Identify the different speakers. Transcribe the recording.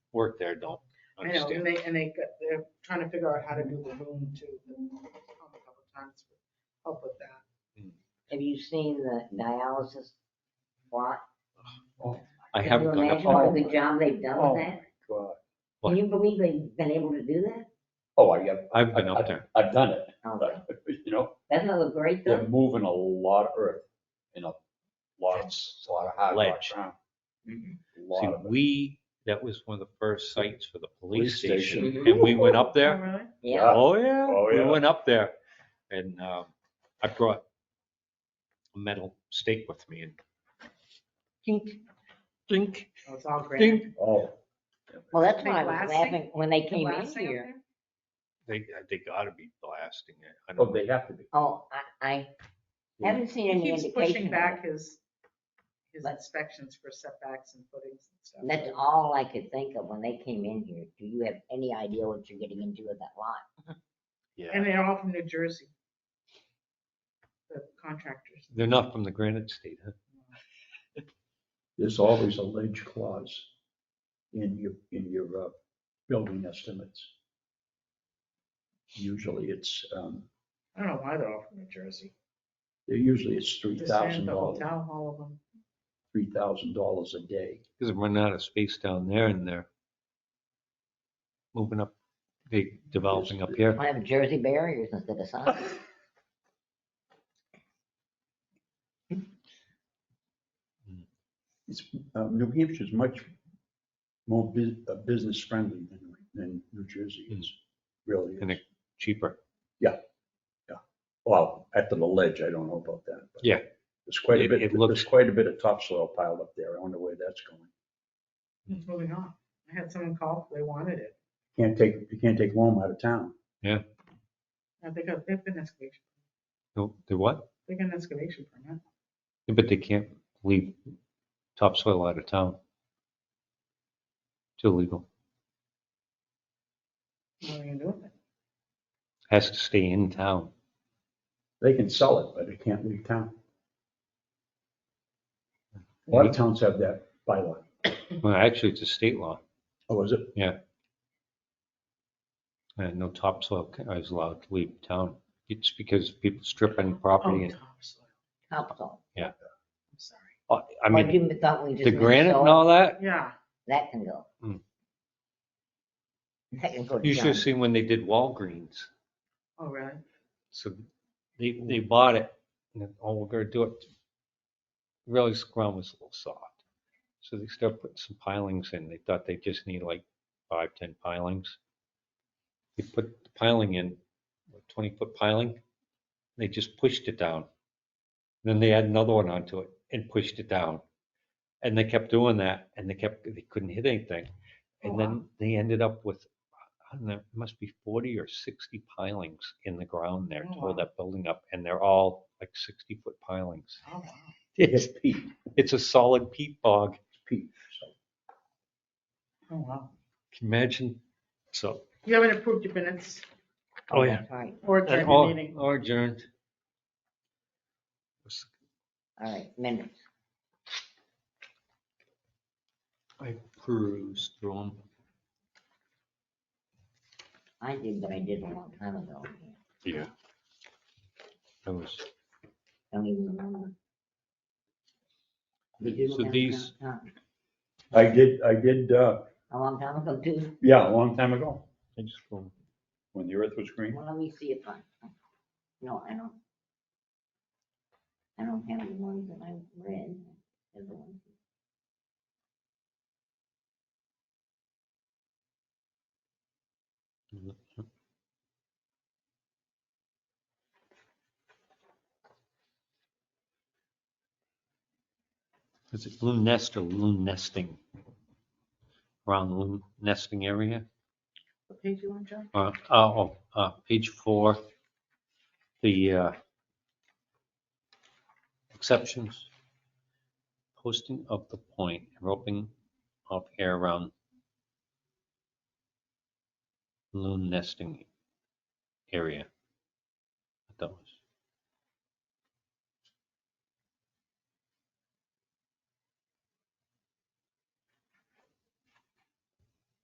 Speaker 1: work there don't
Speaker 2: I know, and
Speaker 1: understand.
Speaker 2: they, and they, got- they're trying to figure out how to do the room too. but I've come a couple times for Help with that.
Speaker 3: Have you seen the dialysis plot?
Speaker 1: I haven't gone up.
Speaker 3: Can you imagine
Speaker 1: Oh,
Speaker 3: what good job they've done with that?
Speaker 4: God.
Speaker 3: Can you believe they've been able to do that?
Speaker 4: uh,
Speaker 3: Oh,
Speaker 4: Oh, I have,
Speaker 1: I've been up there.
Speaker 4: I've done it,
Speaker 3: Okay,
Speaker 4: but, you know,
Speaker 3: that's another great
Speaker 4: they're
Speaker 3: thing.
Speaker 4: moving a lot of earth in a lot, of- a lot of hard rock
Speaker 1: Ledge. Mm-hmm.
Speaker 4: ground. A
Speaker 1: See,
Speaker 4: Lot of it.
Speaker 1: we, that was one of the first sites for the
Speaker 4: Police
Speaker 1: police
Speaker 4: station.
Speaker 1: station. And we went up there.
Speaker 2: really?
Speaker 3: Yeah,
Speaker 1: Oh, yeah.
Speaker 4: Oh,
Speaker 1: We
Speaker 4: yeah.
Speaker 1: went up there and um, I brought a metal stake with me and dink, dink,
Speaker 2: It's all great.
Speaker 1: dink.
Speaker 4: Oh,
Speaker 3: well, that's
Speaker 2: Make
Speaker 3: why I was
Speaker 2: blasting?
Speaker 3: laughing when they came in
Speaker 2: Glass out
Speaker 3: here.
Speaker 2: there?
Speaker 1: They, uh, they gotta be blasting it. I
Speaker 4: oh,
Speaker 1: don't
Speaker 4: they
Speaker 1: know.
Speaker 4: have to be.
Speaker 3: Oh, I, I haven't seen
Speaker 2: He
Speaker 3: any
Speaker 2: keeps
Speaker 3: indication.
Speaker 2: pushing
Speaker 3: of
Speaker 2: back his, his
Speaker 3: But-
Speaker 2: inspections for setbacks and footings and stuff.
Speaker 3: it. That's all I could think of when they came in here. Do you have any idea what you're getting into with that lot?
Speaker 2: And
Speaker 1: Yeah.
Speaker 2: they're all from New Jersey. The contractors.
Speaker 1: They're not from the Granite State, huh?
Speaker 5: there's always a ledge clause in your, in your uh, building estimates. Usually it's, um,
Speaker 2: I don't know why they're all from New Jersey.
Speaker 5: usually it's three
Speaker 2: Just saying,
Speaker 5: thousand
Speaker 2: The whole
Speaker 5: dollars,
Speaker 2: town hall of them.
Speaker 5: three thousand dollars a day.
Speaker 1: Because we're running out of space down there and they're moving up, they developing up here.
Speaker 3: I have Jersey barriers instead of signs.
Speaker 5: It's, uh, New Hampshire's much more bu- uh, business friendly than, than New Jersey is, really.
Speaker 1: And
Speaker 5: is.
Speaker 1: it- Cheaper.
Speaker 5: Well, after the ledge, I don't know about that. but
Speaker 1: Yeah.
Speaker 5: There's quite a
Speaker 1: It-
Speaker 5: bit,
Speaker 1: it looks-
Speaker 5: there's quite a bit of topsoil piled up there. I don't know where that's going.
Speaker 2: It's moving on. I had someone call, they wanted it.
Speaker 5: Can't take, you can't take loam out of town.
Speaker 2: Uh, They got, they've been excavation,
Speaker 1: No, They what?
Speaker 2: they got an excavation permit.
Speaker 1: Yeah, But they can't leave topsoil out of town. It's illegal.
Speaker 2: What are you gonna do with it?
Speaker 1: Has to stay in town.
Speaker 5: They can sell it, but it can't leave town. A lot of towns have that bylaw.
Speaker 1: Well, actually, it's a state law.
Speaker 5: Oh, is it?
Speaker 1: And no topsoil ca- is allowed to leave town. It's because people stripping property
Speaker 2: Oh,
Speaker 1: and,
Speaker 2: topsoil.
Speaker 3: Topsoil.
Speaker 2: I'm sorry.
Speaker 1: Oh, I
Speaker 3: Or
Speaker 1: mean,
Speaker 3: you thought we just.
Speaker 1: the
Speaker 3: meant
Speaker 1: granite
Speaker 3: soil?
Speaker 1: and all that.
Speaker 2: Yeah,
Speaker 3: That can go.
Speaker 1: Hmm.
Speaker 3: That can go to
Speaker 1: You should
Speaker 3: junk.
Speaker 1: have seen when they did Walgreens.
Speaker 2: oh, really?
Speaker 1: So they, they bought it and then, oh, we're gonna do it. Really, the ground was a little soft. So they started putting some pilings in. They thought they just need like five, 10 pilings. They put the piling in, a 20 foot piling. They just pushed it down. Then they add another one onto it and pushed it down. And they kept doing that and they kept, they couldn't hit anything.
Speaker 2: Oh,
Speaker 1: And then they ended up with, I don't know, it must be 40 or 60 pilings in the ground there
Speaker 2: Oh,
Speaker 1: to
Speaker 2: wow.
Speaker 1: hold that building up. And they're all like 60 foot pilings.
Speaker 2: Oh, wow.
Speaker 1: It's,
Speaker 5: Pete,
Speaker 1: it's a solid peat bog.
Speaker 5: Pete. so.
Speaker 2: Oh, wow.
Speaker 1: Can you Imagine, so,
Speaker 2: You haven't approved your minutes
Speaker 1: oh yeah.
Speaker 3: All right,
Speaker 2: or
Speaker 1: And
Speaker 2: adjourned your
Speaker 1: all
Speaker 2: meeting.
Speaker 1: all adjourned.
Speaker 3: all right, minutes.
Speaker 1: I perused through 'em.
Speaker 3: I did, but I did a long time ago.
Speaker 1: Yeah. I was,
Speaker 3: Don't even remember. You do
Speaker 1: so
Speaker 3: have
Speaker 1: these,
Speaker 3: some time.
Speaker 5: I did, I did, uh,
Speaker 3: A long time ago too.
Speaker 5: yeah, a long time ago,
Speaker 1: I just, threw 'em.
Speaker 5: when the earth was green.
Speaker 3: Well, let me see if I, no, I don't. I don't have the ones that I read. I have the ones-
Speaker 1: is it loon nest or loon nesting? Around the loon nesting area?
Speaker 2: What page you on, John?
Speaker 1: Uh, oh, oh, uh, page four, the, uh, exceptions. Posting of the point, roping of air around loon nesting area. I thought it was